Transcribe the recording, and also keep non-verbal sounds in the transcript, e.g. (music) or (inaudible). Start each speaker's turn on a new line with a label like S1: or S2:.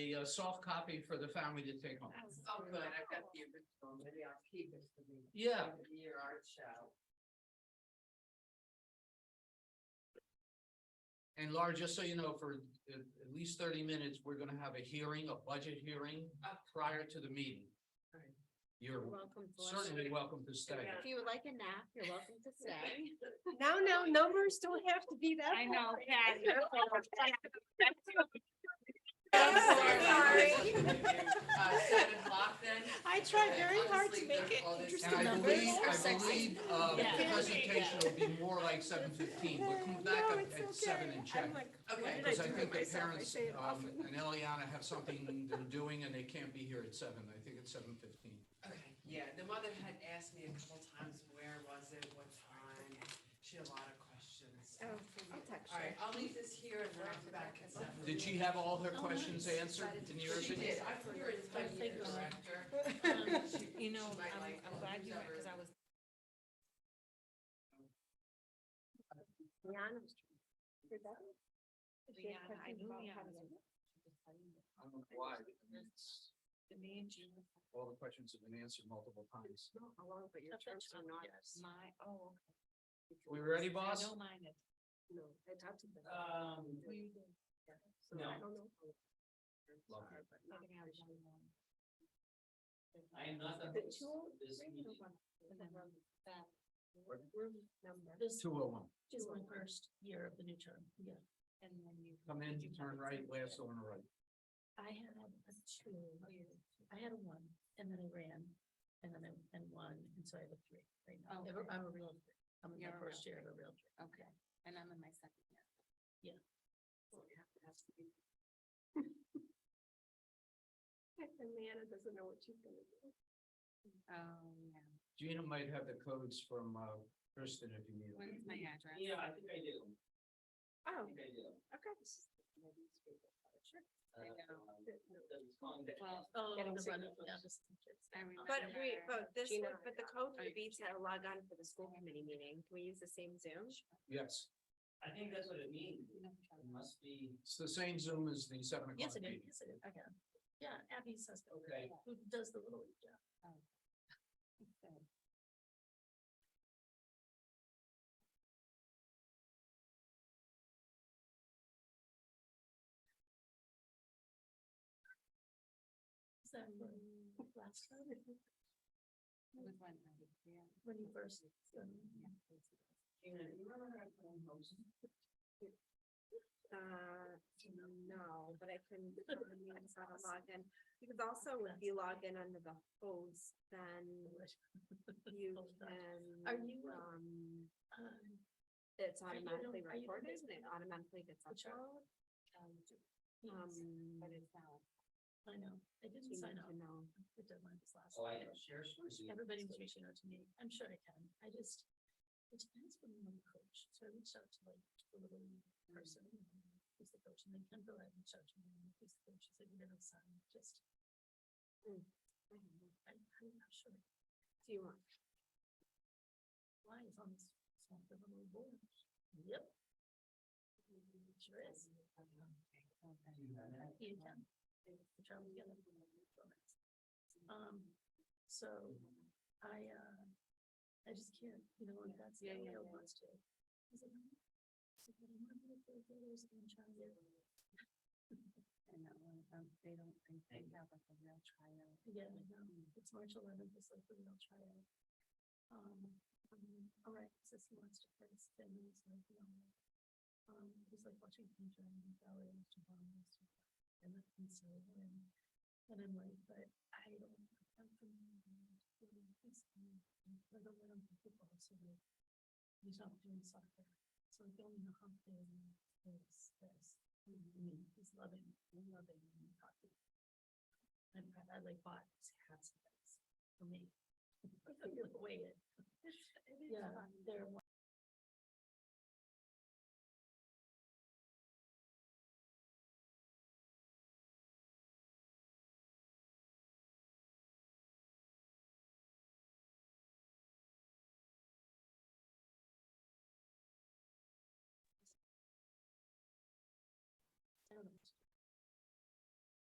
S1: a soft copy for the family to take home.
S2: That's
S3: Oh, good, I've got the original, maybe I'll keep it for the.
S1: Yeah.
S3: for the Year art show.
S1: And Laura, just so you know, for at, at least thirty minutes, we're gonna have a hearing, a budget hearing
S3: Oh.
S1: prior to the meeting.
S3: Right.
S1: You're
S2: Welcome to us.
S1: certainly welcome to stay.
S2: If you would like a nap, you're welcome to
S3: (laughs)
S2: stay.
S4: No, no, numbers don't have to be that.
S2: I know,
S4: high.
S2: Pat. you're so-
S4: (laughs) sorry.
S3: Uh, seven o'clock then?
S4: I tried
S3: Okay,
S4: very
S3: I'll just
S4: hard to
S3: leave
S4: make
S3: the-
S4: it
S3: all
S1: And
S3: this
S4: interesting
S1: I
S3: down.
S4: numbers.
S1: believe,
S4: are
S1: I
S4: sexy.
S1: believe, uh, the
S2: Yeah.
S1: presentation will be more like seven fifteen, but come back
S4: No,
S1: up
S4: it's
S1: at seven and
S4: okay. I'm
S1: check.
S4: like,
S3: Okay.
S4: what did
S1: Because
S4: I
S1: I
S4: do to
S1: think the
S4: myself? I
S1: parents,
S4: say it
S1: um,
S4: often.
S1: and Eliana have something they're doing and they can't be here at seven. I think it's seven fifteen.
S3: Okay, yeah, the mother had asked me a couple times, where was it, what time, she had a lot of questions.
S4: Oh,
S3: All
S4: I'll text
S3: right,
S4: her.
S3: I'll leave this here and then I'll be back at seven.
S1: Did she have all her questions answered in your
S3: Oh, She
S1: opinion?
S3: did, I put her in touch with the director. She-
S5: Um, You
S3: she
S5: know,
S3: might
S5: I'm,
S3: like
S5: I'm glad you went, because I
S3: whoever-
S5: was,
S4: Rihanna was trying- Did that one? She
S5: Rihanna, I
S4: had questions
S5: knew
S4: about
S5: Rihanna
S4: having
S5: was
S4: a-
S1: I don't know why. It's- All the questions have been answered multiple times.
S4: No, I won't, but your
S5: That's what
S4: terms are
S5: Trump
S4: not.
S5: my, oh.
S1: We ready, boss?
S5: I don't mind it.
S4: No, I talked to them.
S3: Um,
S4: We- yeah, so
S3: no.
S4: I don't know. how terms
S1: Love
S4: are, but
S5: We're
S4: not
S5: gonna have
S4: official.
S5: one more.
S3: I am not the
S4: The
S3: host
S4: two-
S3: of this
S4: three
S3: meeting. Mm-hmm.
S4: number-
S5: And then
S4: room-
S5: that-
S4: room number.
S1: Two oh one.
S4: Two oh one.
S5: year of the new term, yeah. And then you.
S1: Come in,
S5: you
S1: turn
S5: have a
S1: right,
S5: second
S1: last
S5: year.
S1: on the right.
S5: I had a two, I had a one, and then I ran, and then I, and one, and so I have a three right now.
S2: Okay.
S5: I'm a real, three. I'm in
S2: You're
S5: my
S2: a real
S5: first year of a real. three.
S2: Okay, and I'm in my second year.
S4: Amanda doesn't know what she's gonna do.
S2: Oh, yeah.
S1: Gina might have the codes from uh, Kristen if you need them.
S2: When's my address?
S3: Yeah, I think I do, I
S4: Oh,
S3: think I do.
S4: okay.
S3: Uh, it's on the-
S2: Well,
S5: Oh,
S4: Getting
S5: the run-
S4: signatures.
S5: yeah, just-
S2: I remember.
S4: But we, but this,
S2: Gina.
S4: but the code
S2: Oh, you-
S4: forbids that I log on for the school committee meeting. Can we use the same Zoom?
S1: Yes,
S3: I think that's what it means, it must be.
S1: it's the same Zoom as the seven o'clock
S5: Yes, it is,
S1: meeting.
S5: yes, it is, I got it. Yeah, Abby says, that.
S3: Okay.
S5: who does the little league, yeah. Is that when, last time,
S2: With one, I- yeah.
S5: when you first? um,
S3: Gina, you remember how to host?
S4: Uh, no, but I couldn't, I mean, it's not logged in. Because also if you log in under the host, then
S5: (laughs)
S4: you
S5: Hold on.
S4: can.
S5: Are you, uh,
S4: Um,
S5: Um,
S4: it's
S5: you
S4: automatically
S5: on- are you on
S4: recorded and it
S5: Facebook?
S4: automatically gets
S5: Which one?
S4: uploaded.
S5: yes,
S4: Um,
S2: But it's not.
S5: I know, I
S4: you
S5: didn't
S4: need
S5: sign up,
S4: to know.
S5: the deadline was last.
S3: Oh, I
S5: night.
S3: can share screen.
S5: Everybody was reaching out to me. I'm sure I can. I just, it depends when I'm the coach. So I reached out to like the little person. Who's the coach? And then Kendra, I reached out to him. Who's the coach? He's like, we don't sign. Just,
S4: Mm.
S5: I don't know. I, I'm not sure
S4: Do you want?
S5: why it's on this, it's on the little board. Yep. Sure is. You can. We travel together. Um, so I, uh, I just can't, you know, and that's the
S2: Yeah, yeah,
S5: way I
S2: yeah.
S5: wants to. I was like, "Mm, so what am I gonna do for those and try to get-"
S2: And that one, um, they don't think they have like a real trial.
S5: Yeah, I know. um, It's March eleventh, it's like the real trial. Um, um, all right, says he wants to first, then he's like, no. Um, he's like watching Peter and the ballet and the bombs. And the pencil and, and I'm like, but I don't, I'm from. I don't want to football, so like, he's not doing soccer. So like, the only half day is this. And He's loving, loving hockey. And I, I like bought his (laughs) hats and things for me. Away it. Yeah, they're